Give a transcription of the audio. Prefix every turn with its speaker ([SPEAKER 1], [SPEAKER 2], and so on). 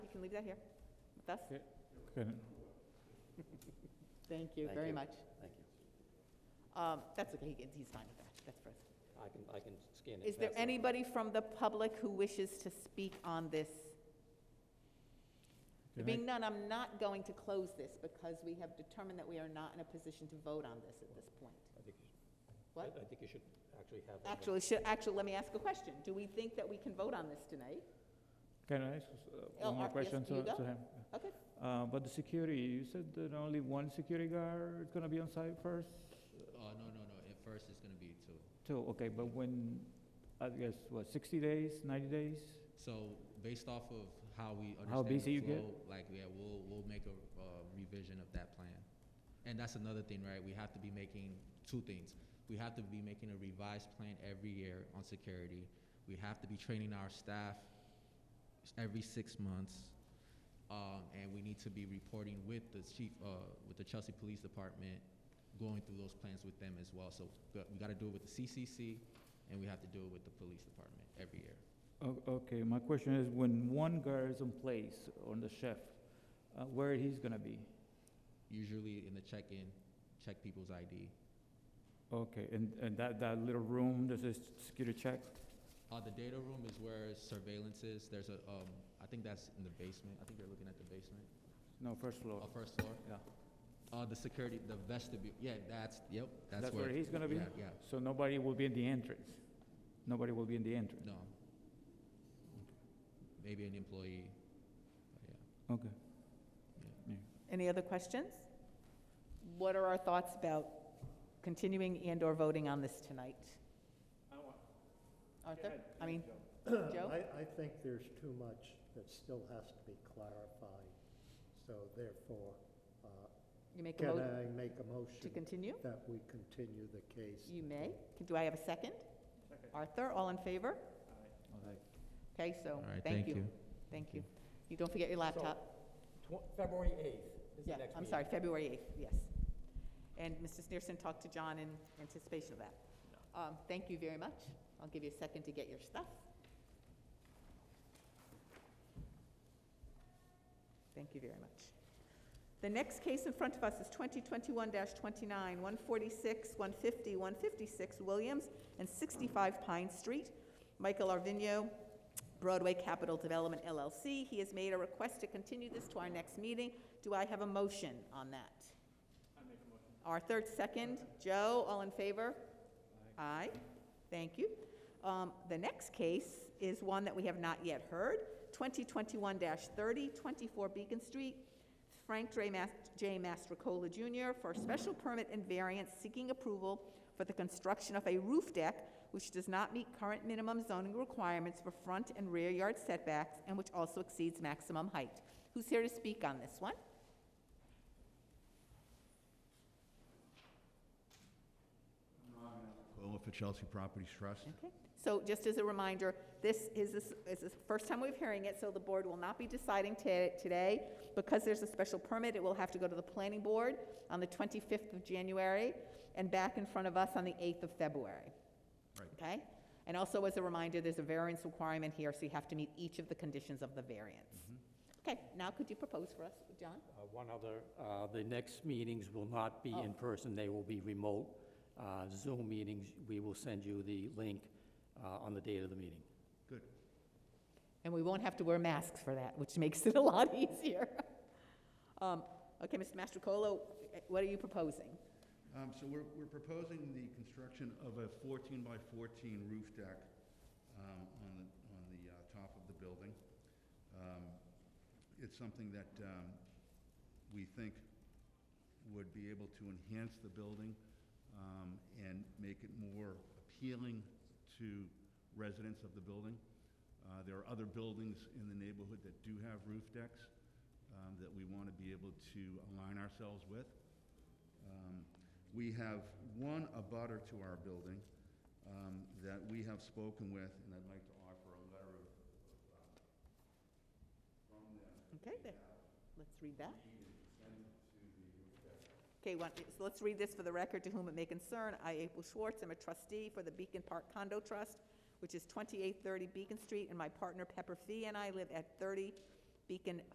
[SPEAKER 1] can leave that here with us.
[SPEAKER 2] Good.
[SPEAKER 1] Thank you
[SPEAKER 3] Thank
[SPEAKER 1] very
[SPEAKER 3] you.
[SPEAKER 1] much.
[SPEAKER 3] Thank you.
[SPEAKER 1] Um, That's okay, he- he's fine with that, that's for us.
[SPEAKER 3] I can, I can scan it.
[SPEAKER 1] Is there
[SPEAKER 3] pass it.
[SPEAKER 1] anybody from the public who wishes to speak on this? There
[SPEAKER 2] Good
[SPEAKER 1] Being
[SPEAKER 2] night.
[SPEAKER 1] none, I'm not going to close this because we have determined that we are not in a position to vote on this at this point.
[SPEAKER 3] I think you should- I-
[SPEAKER 1] What?
[SPEAKER 3] I think you should actually have. that.
[SPEAKER 1] Actually, should, actually, let me ask a question. Do we think that we can vote on this tonight?
[SPEAKER 2] Can I ask uh,
[SPEAKER 1] Oh,
[SPEAKER 2] one more
[SPEAKER 1] uh, yes,
[SPEAKER 2] question
[SPEAKER 1] you
[SPEAKER 2] to
[SPEAKER 1] go.
[SPEAKER 2] to him?
[SPEAKER 1] Okay,
[SPEAKER 2] Uh, But the security, you said that only one security guard is gonna be on site first?
[SPEAKER 4] Oh, no, no, no, at first it's gonna be two.
[SPEAKER 2] Two, okay, but when, I guess, what, 60 days, 90 days?
[SPEAKER 4] So based off of how we understand.
[SPEAKER 2] How
[SPEAKER 4] the
[SPEAKER 2] busy you get?
[SPEAKER 4] flow, Like, yeah, we'll, we'll make a, uh revision of that plan. And that's another thing, right? We have to be making two things. We have to be making a revised plan every year on security. We have to be training our staff every six months. Um, and we need to be reporting with the chief, uh, with the Chelsea Police Department, going through those plans with them as well. So but we gotta do it with the CCC and we have to do it with the police department every year.
[SPEAKER 2] O- Okay, my question is, when one guard is in place on the chef, uh, where he's gonna be?
[SPEAKER 4] usually in the check-in, check people's ID.
[SPEAKER 2] Okay, and, and that, that little room, there's a s- security check?
[SPEAKER 4] Uh, the data room is where surveillance is. There's a, um, I think that's in the basement. I think they're looking at the basement,
[SPEAKER 2] No, first floor,
[SPEAKER 4] uh, first floor.
[SPEAKER 2] Oh. yeah.
[SPEAKER 4] Uh, the security, the vestibule. Yeah, that's, yep, that's,
[SPEAKER 2] That's where he's gonna be?
[SPEAKER 4] Yeah, yeah.
[SPEAKER 2] So nobody will be in the entrance? Nobody will be in the entrance?
[SPEAKER 4] No. Maybe an employee. but yeah.
[SPEAKER 2] Okay. Yeah.
[SPEAKER 1] any other questions? What are our thoughts about continuing and/or voting on this tonight? Arthur, I mean, Joe?
[SPEAKER 5] I, I think there's too much that still has to be clarified, so therefore, uh,
[SPEAKER 1] You make a
[SPEAKER 5] can
[SPEAKER 1] motion
[SPEAKER 5] I make a
[SPEAKER 1] to
[SPEAKER 5] motion
[SPEAKER 1] continue?
[SPEAKER 5] that we continue the case?
[SPEAKER 1] You may. Can- Do I have a second? Arthur, all in favor? Okay, so,
[SPEAKER 4] All
[SPEAKER 1] thank
[SPEAKER 4] right, thank
[SPEAKER 1] you.
[SPEAKER 4] you.
[SPEAKER 1] Thank you. You don't forget your laptop?
[SPEAKER 3] Tw- February 8th is the
[SPEAKER 1] Yeah,
[SPEAKER 3] next meeting.
[SPEAKER 1] I'm sorry, February 8th, yes. And Mr. Sneerson talked to John in anticipation of that. Um, Thank you very much. I'll give you a second to get your stuff. Thank you very much. The next case in front of us is 2021-29, 146, 150, 156 Williams and 65 Pine Street. Michael Arvino, Broadway Capital Development LLC. He has made a request to continue this to our next meeting. Do I have a motion on that? I make a motion. Arthur, second. Joe, all in favor? Aye. Thank you. Um, The next case is one that we have not yet heard, 2021-30, 24 Beacon Street. Frank J. Mas- J. Mastrocola Jr. for a special permit and variance seeking approval for the construction of a roof deck which does not meet current minimum zoning requirements for front and rear yard setbacks and which also exceeds maximum height. Who's here to speak on this one?
[SPEAKER 6] Cola for Chelsea Properties Trust.
[SPEAKER 1] Okay, so just as a reminder, this is, this is the first time we're hearing it, so the board will not be deciding ta- today. Because there's a special permit, it will have to go to the planning board on the 25th of January and back in front of us on the 8th of February.
[SPEAKER 6] Right.
[SPEAKER 1] Okay? And also as a reminder, there's a variance requirement here, so you have to meet each of the conditions of the variance. Okay, now could you propose for us, John?
[SPEAKER 3] Uh, One other, uh, the next meetings will not be
[SPEAKER 1] Oh.
[SPEAKER 3] in person, they will be remote uh, Zoom meetings. We will send you the link uh, on the date of the meeting.
[SPEAKER 6] Good.
[SPEAKER 1] And we won't have to wear masks for that, which makes it a lot easier. Um, Okay, Mr. Mastrocolo, eh, what are you proposing?
[SPEAKER 6] Um, So we're, we're proposing the construction of a 14 by 14 roof deck um, on the, on the uh, top of the building. Um, It's something that um, we think would be able to enhance the building um, and make it more appealing to residents of the building. Uh, There are other buildings in the neighborhood that do have roof decks um, that we want to be able to align ourselves with. Um, We have one abutter to our building um, that we have spoken with, and I'd like to offer a letter of, uh, from them
[SPEAKER 1] Okay, there. Let's read that. Okay, one, so let's read this for the record, to whom it may concern. I, April Schwartz, am a trustee for the Beacon Park Condo Trust, which is 2830 Beacon Street, and my partner Pepper Fee and I live at 30 Beacon